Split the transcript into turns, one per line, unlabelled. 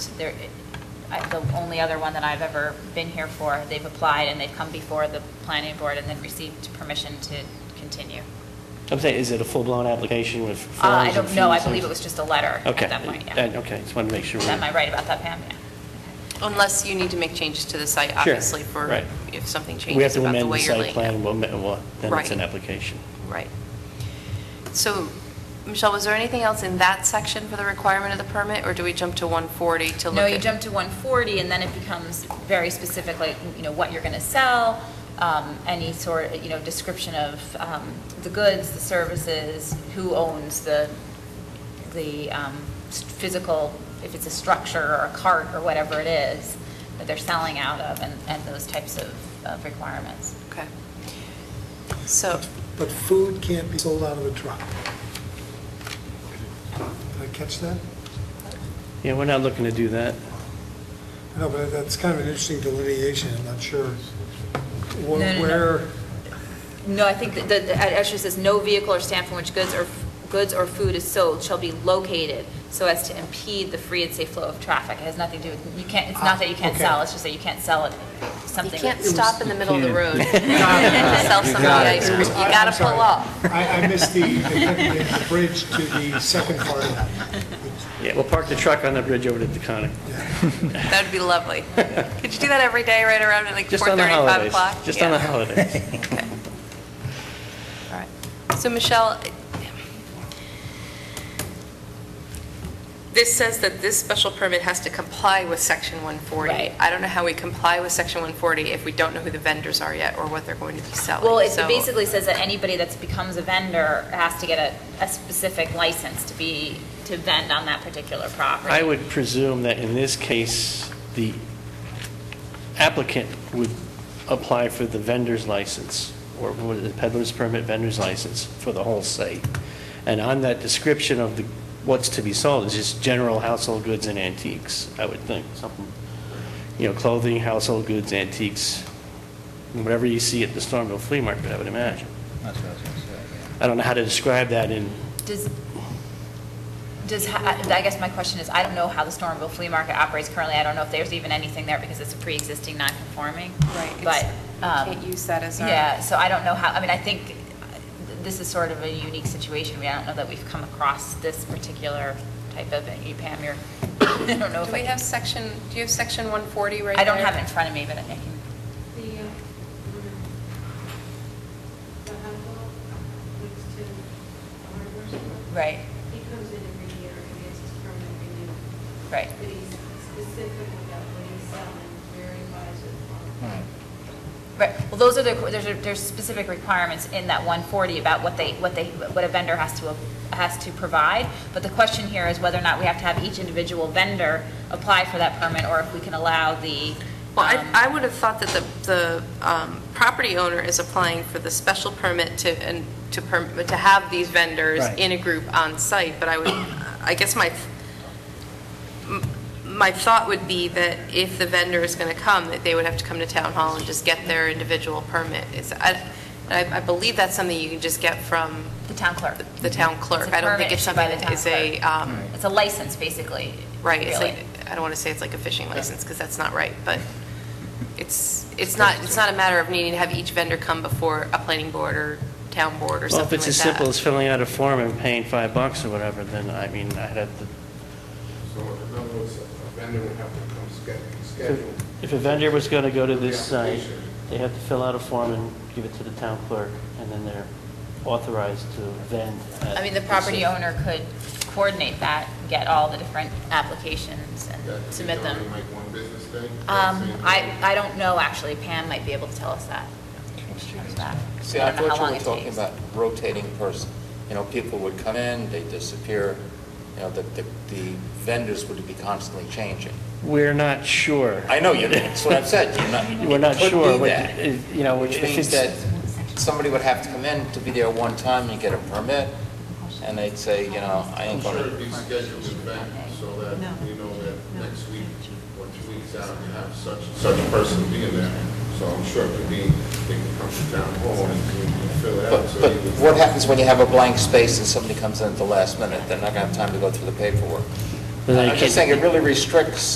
there, I- the only other one that I've ever been here for, they've applied and they've come before the planning board and then received permission to continue.
I'm saying, is it a full-blown application
Uh,
with forms?
I
and
don't know, I
fees and-
believe it was just a letter at
Okay.
that point, yeah.
Uh, Okay, just wanted to make sure.
Am I right about that, Pam? Yeah.
Unless you need to make changes to the site, obviously, for,
right.
if something
We have
changes
to
about the
amend the
way you're
site
laying it.
plan, we'll, ma- we'll- then it's
Right.
an application.
Right. So, Michelle, was there anything else in that section for the requirement of the permit, or do we jump to 140 to look at?
No, you jump to 140, and then it becomes very specific, like, you know, what you're going to sell, um, any sort, you know, description of um, the goods, the services, who owns the, the um, s- physical, if it's a structure or a cart or whatever it is that they're selling out of, and, and those types of, of requirements.
Okay. So,
But food can't be sold out of a truck. Did I catch that?
Yeah, we're not looking to do that.
No, but that's kind of an interesting delineation, I'm not sure wh-
No, no, no.
where,
No, I think that, that- it actually says, "No vehicle or stand from which goods or, goods or food is sold shall be located so as to impede the free and safe flow of traffic." It has nothing to do with, you can't, it's not that you can't
Okay.
sell, it's just that you can't sell it,
you
something.
can't
with-
stop in the middle of the
Yeah.
road and sell somebody ice cream. You
I- I'm
gotta pull
sorry.
off.
I, I missed the, the the bridge to the second part of that.
Yeah, we'll park the truck on the bridge over to Deconic.
That would be lovely. Could you do that every day, right around at like
Just on the
4:30, 5
holidays.
o'clock?
Just on
Yeah.
the holidays.
All right. So Michelle, this says that this special permit has to comply with Section 140.
Right.
I don't know how we comply with Section 140 if we don't know who the vendors are yet or what they're going to be selling.
Well, it
So-
basically says that anybody that becomes a vendor has to get a, a specific license to be, to vend on that particular property.
I would presume that in this case, the applicant would apply for the vendor's license, or what is it, peddler's permit, vendor's license for the whole site. And on that description of the, what's to be sold, is just general household goods and antiques, I would think, something, you know, clothing, household goods, antiques, whatever you see at the Stormville Flea Market, I would imagine.
That's what I was going to say, yeah.
I don't know how to describe that in,
Does, does, ha- I guess my question is, I don't know how the Stormville Flea Market operates currently. I don't know if there's even anything there because it's a pre-existing non-conforming.
Right,
But,
it's- we
um,
can't use that as our-
Yeah, so I don't know how, I mean, I think uh, this is sort of a unique situation. We, I don't know that we've come across this particular type of, E you, Pam, you're, I don't know if
Do we
I can.
have Section, do you have Section 140 right
I don't
there?
have it in front of me, but I can,
The, uh, the Apple needs to hardware store.
right,
He comes in every year and gets his permit renewed.
right.
But he's specific about what he's selling, very wise
All
and.
right.
Right, well, those are the, there's, a- there's specific requirements in that 140 about what they, what they, what a vendor has to, has to provide, but the question here is whether or not we have to have each individual vendor apply for that permit, or if we can allow the,
Well, I-
um,
I would have thought that the, the um, property owner is applying for the special permit to, and to, perm- to have these vendors
Right.
in a group on site, but I would, I guess my, m- my thought would be that if the vendor is going to come, that they would have to come to town hall and just get their individual permit. It's, I, I I believe that's something you can just get from
the town clerk.
the town clerk.
It's a
I don't
permit
think it's
issued by
something
the
that is
town
a,
clerk.
um,
It's a license, basically.
Right, it's
really.
like, I don't want to say it's like a fishing license, because that's not right, but it's, it's not, it's not a matter of needing to have each vendor come before a planning board or town board or
well, if
something like
it's as
that.
simple as filling out a form and paying five bucks or whatever, then, I mean, I'd have to
So in other words, a vendor would have to come schedule, schedule.
If a vendor was going to go to this
The
site,
application.
they have to fill out a form and give it to the town clerk, and then they're authorized to vend. at
I mean, the property
site.
owner could coordinate that, get all the different applications
That
and
could
submit
be
them.
done in, Like one business day?
Um,
Same
I,
day?
I don't know, actually, Pam might be able to tell us that. How's that?
See,
I
I
don't know how
thought
long
you were
it
talking
takes.
about rotating person. You know, people would come in, they disappear, you know, the, the the vendors would be constantly changing.
We're not sure.
I know, you that's what I've said, you're not. you
We're not
could
sure,
do
what-
that.
uh, you know,
Which
if
means that
it's-
somebody would have to come in to be there one time and get a permit, and they'd say, you know, I
I'm
ain't
sure
gonna.
it'd be scheduled in advance so that, you know, that next week or two weeks out, you have such, such a person being there. So I'm sure it could be, they can come to town hall and you can fill it out.
But,
so
but
you would-
what happens when you have a blank space and somebody comes in at the last minute? They're not gonna have time to go through the paperwork.
Then they
I'm
can't-
just saying, it really restricts